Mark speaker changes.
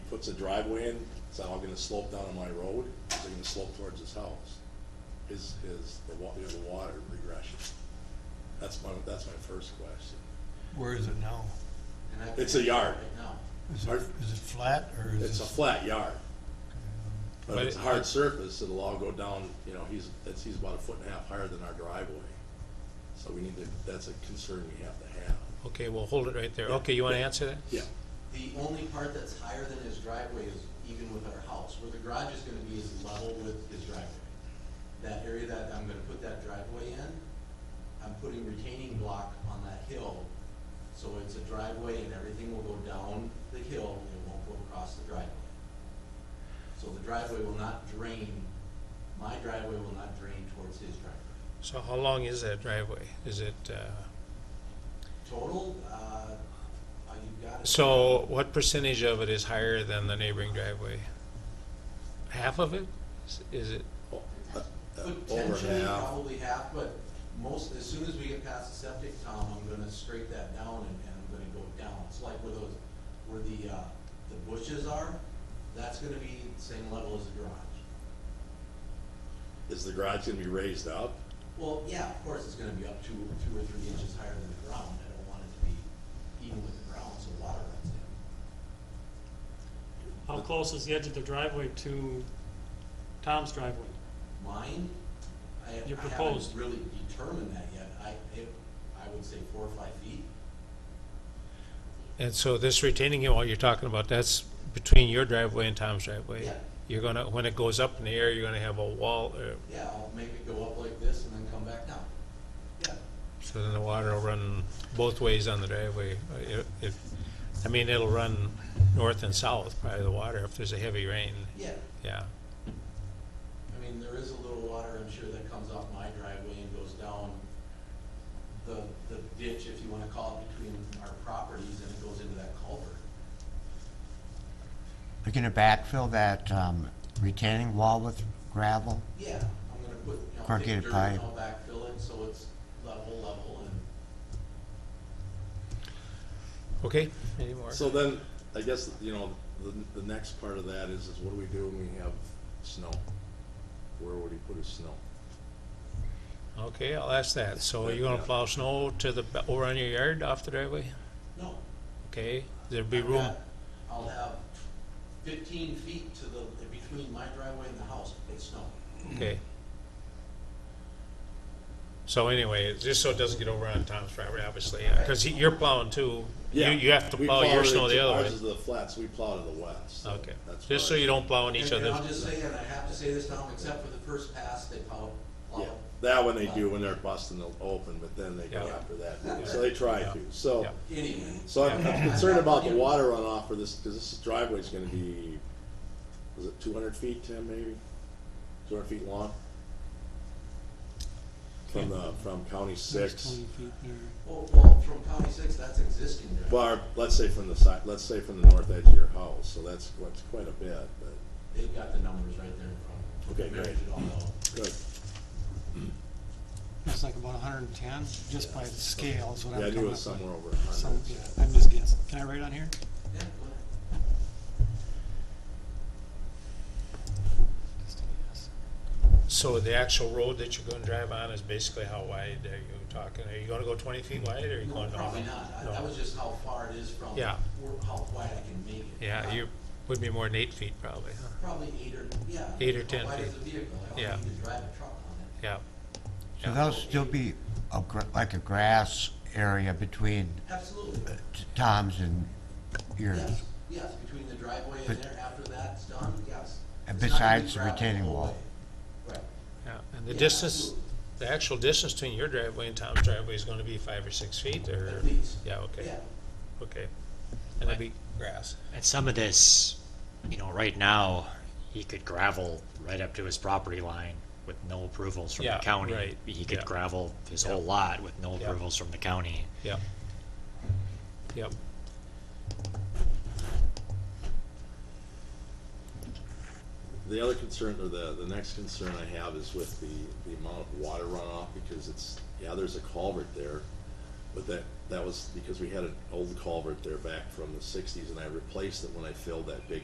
Speaker 1: puts a driveway in, it's now gonna slope down on my road, it's gonna slope towards his house. Is, is the wa, you know, the water regression? That's my, that's my first question.
Speaker 2: Where is it now?
Speaker 3: And I
Speaker 1: It's
Speaker 3: think
Speaker 1: a yard.
Speaker 3: Right now,
Speaker 2: Is
Speaker 1: Are-
Speaker 2: it, is it flat or is it?
Speaker 1: It's a flat yard, but
Speaker 4: But
Speaker 1: it's a
Speaker 4: it-
Speaker 1: hard surface, it'll all go down, you know, he's, that's, he's about a foot and a half higher than our driveway. So we need to, that's a concern we have to have.
Speaker 4: Okay, well, hold it right there.
Speaker 1: Yeah.
Speaker 4: Okay, you want to answer that?
Speaker 1: Yeah,
Speaker 3: the only part that's higher than his driveway is even with our house, where the garage is gonna be is level with his driveway. That area that I'm gonna put that driveway in, I'm putting retaining block on that hill, so it's a driveway and everything will go down the hill, and it won't go across the driveway. So the driveway will not drain, my driveway will not drain towards his driveway.
Speaker 4: So how long is that driveway? Is it, uh,
Speaker 3: Total, uh, uh, you've got it.
Speaker 4: so what percentage of it is higher than the neighboring driveway? Half of it? Is- Is it,
Speaker 1: Oh, uh, uh, over
Speaker 3: Potentially,
Speaker 1: half,
Speaker 3: probably half, but most, as soon as we get past the septic town, I'm gonna straight that down and, and I'm gonna go down. It's like where those, where the, uh, the bushes are, that's gonna be the same level as the garage.
Speaker 1: is the garage gonna be raised up?
Speaker 3: Well, yeah, of course, it's gonna be up two, two or three inches higher than the ground. I don't want it to be even with the ground, so water runs in.
Speaker 5: How close is the edge of the driveway to Tom's driveway?
Speaker 3: Mine, I, I
Speaker 5: Your
Speaker 3: haven't
Speaker 5: proposed.
Speaker 3: really determined that yet. I, it, I would say four or five feet.
Speaker 4: and so this retaining wall you're talking about, that's between your driveway and Tom's driveway?
Speaker 3: Yeah.
Speaker 4: You're gonna, when it goes up in the air, you're gonna have a wall, uh,
Speaker 3: Yeah, I'll make it go up like this and then come back down. Yeah,
Speaker 4: so then the water will run both ways on the driveway. Uh, it- it- I mean, it'll run north and south, probably the water, if there's a heavy rain,
Speaker 3: yeah.
Speaker 4: yeah.
Speaker 3: I mean, there is a little water, I'm sure, that comes off my driveway and goes down the, the ditch, if you wanna call it, between our properties and it goes into that culvert.
Speaker 6: You're gonna backfill that um, retaining wall with gravel?
Speaker 3: Yeah, I'm gonna put, you know, take dirt
Speaker 6: Corrugated
Speaker 3: and
Speaker 6: pipe.
Speaker 3: I'll backfill it, so it's level, level, and
Speaker 4: Okay, any more?
Speaker 1: So then, I guess, you know, the, the next part of that is, is what do we do when we have snow? Where would he put his snow?
Speaker 4: Okay, I'll ask that. So you're gonna plow snow to the, over on your yard off the driveway?
Speaker 3: no.
Speaker 4: Okay, there'll be
Speaker 3: I've
Speaker 4: room,
Speaker 3: got- I'll have fifteen feet to the, between my driveway and the house, it's snow.
Speaker 4: okay. So anyway, just so it doesn't get over on Tom's driveway, obviously, yeah, cause he- you're plowing too. You, you have to
Speaker 1: We
Speaker 4: plow your
Speaker 1: to
Speaker 4: snow the other
Speaker 1: Ours
Speaker 4: way.
Speaker 1: is the flats, we plow to the west. so
Speaker 4: Okay,
Speaker 1: that's
Speaker 4: just so
Speaker 1: why-
Speaker 4: you don't plow in each
Speaker 3: And-
Speaker 4: other's.
Speaker 3: And I'll just say, and I have to say this now, except for the first pass, they plow,
Speaker 1: Yeah,
Speaker 3: plow
Speaker 1: that one they do when they're busting the open, but then they go
Speaker 4: Uh, Yeah.
Speaker 1: after that, so they try to, so.
Speaker 4: Yeah.
Speaker 3: anyway.
Speaker 1: So I'm I'm concerned about the water runoff for this, cause this driveway's gonna be, was it two hundred feet, Tim, maybe? Two hundred feet long? From the, from county six.
Speaker 5: Twenty feet there.
Speaker 3: Well, well, from County Six, that's existing there.
Speaker 1: Well, let's say from the side, let's say from the north edge of your house, so that's, that's quite a bit, but,
Speaker 3: They've got the numbers right there in front of them.
Speaker 1: Okay,
Speaker 3: Measured
Speaker 1: great.
Speaker 3: it all out.
Speaker 1: good.
Speaker 7: It's like about hundred and ten, just by the scale is what
Speaker 1: Yeah, I
Speaker 7: I'm
Speaker 1: knew
Speaker 7: coming
Speaker 1: it was
Speaker 7: up with.
Speaker 1: somewhere over a hundred.
Speaker 7: Some- yeah, I'm just guessing. Can I write on here?
Speaker 3: Yeah, go ahead.
Speaker 7: Just a guess.
Speaker 4: So the actual road that you're gonna drive on is basically how wide are you talking? Are you gonna go twenty feet wide or are you
Speaker 3: No,
Speaker 4: going? over?
Speaker 3: probably not. I-
Speaker 4: No.
Speaker 3: That was just how far it is from.
Speaker 4: Yeah.
Speaker 3: where- How wide I can make it.
Speaker 4: Yeah,
Speaker 3: Prob-
Speaker 4: you, would be more than eight feet probably, huh?
Speaker 3: Probably eight or, yeah.
Speaker 4: Eight or
Speaker 3: how
Speaker 4: 10
Speaker 3: wide
Speaker 4: feet.
Speaker 3: is the vehicle? I
Speaker 4: Yeah.
Speaker 3: don't need to drive a truck on it.
Speaker 4: Yeah.
Speaker 6: So
Speaker 4: Yeah.
Speaker 6: there'll still be a gr- like a grass area between uh,
Speaker 3: Absolutely.
Speaker 6: t- Tom's and yours?
Speaker 3: Yes, yes, between the driveway and
Speaker 6: But-
Speaker 3: there, after that's done, yes.
Speaker 6: And
Speaker 3: It's not gonna be
Speaker 6: besides the
Speaker 3: gravel
Speaker 6: retaining
Speaker 3: whole
Speaker 6: wall.
Speaker 3: way. Right.
Speaker 4: Yeah, and the
Speaker 3: Yeah,
Speaker 4: distance,
Speaker 3: absolutely.
Speaker 4: the actual distance between your driveway and Tom's driveway is gonna be five or six feet, or?
Speaker 3: At least.
Speaker 4: Yeah, okay,
Speaker 3: Yeah.
Speaker 4: okay. And it'd be grass.
Speaker 8: And some of this, you know, right now, he could gravel right up to his property line with no approvals from the
Speaker 4: Yeah,
Speaker 8: county.
Speaker 4: right,
Speaker 8: He
Speaker 4: yeah.
Speaker 8: could gravel his
Speaker 4: Yeah.
Speaker 8: whole lot with no
Speaker 4: Yeah.
Speaker 8: approvals from the county.
Speaker 4: Yep. Yep.
Speaker 1: The other concern, or the, the next concern I have is with the, the amount of water runoff, because it's, yeah, there's a culvert there, but that, that was because we had an old culvert there back from the sixties, and I replaced it when I filled that big